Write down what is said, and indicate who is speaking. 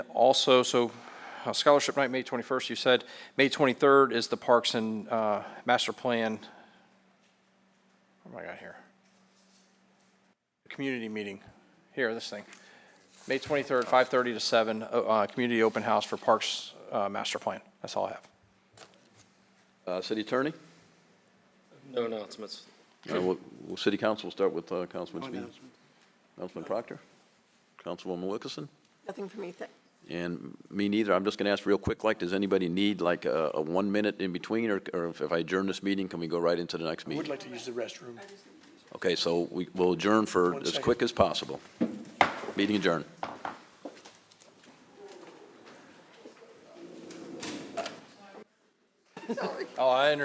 Speaker 1: Also, so uh, scholarship night, May 21st, you said. May 23rd is the Parks and uh, Master Plan. What am I got here? Community meeting. Here, this thing. May 23rd, 5:30 to 7, uh, uh, community open house for Parks uh, Master Plan. That's all I have.
Speaker 2: Uh, City Attorney?
Speaker 3: No announcements.
Speaker 2: Uh, we'll- we'll- City Council, we'll start with uh, Councilman
Speaker 4: Oh,
Speaker 2: Speed. Councilman Proctor? Councilwoman Wilkerson?
Speaker 5: Nothing for me, thank.
Speaker 2: And me neither. I'm just going to ask real quick, like, does anybody need like a a one minute in between? Or or if if I adjourn this meeting, can we go right into the next
Speaker 4: I would
Speaker 2: meeting?
Speaker 4: like to use the restroom.
Speaker 2: Okay, so we will adjourn for
Speaker 4: One
Speaker 2: as
Speaker 4: second.
Speaker 2: quick as possible. Meeting adjourned.
Speaker 1: Oh, I understand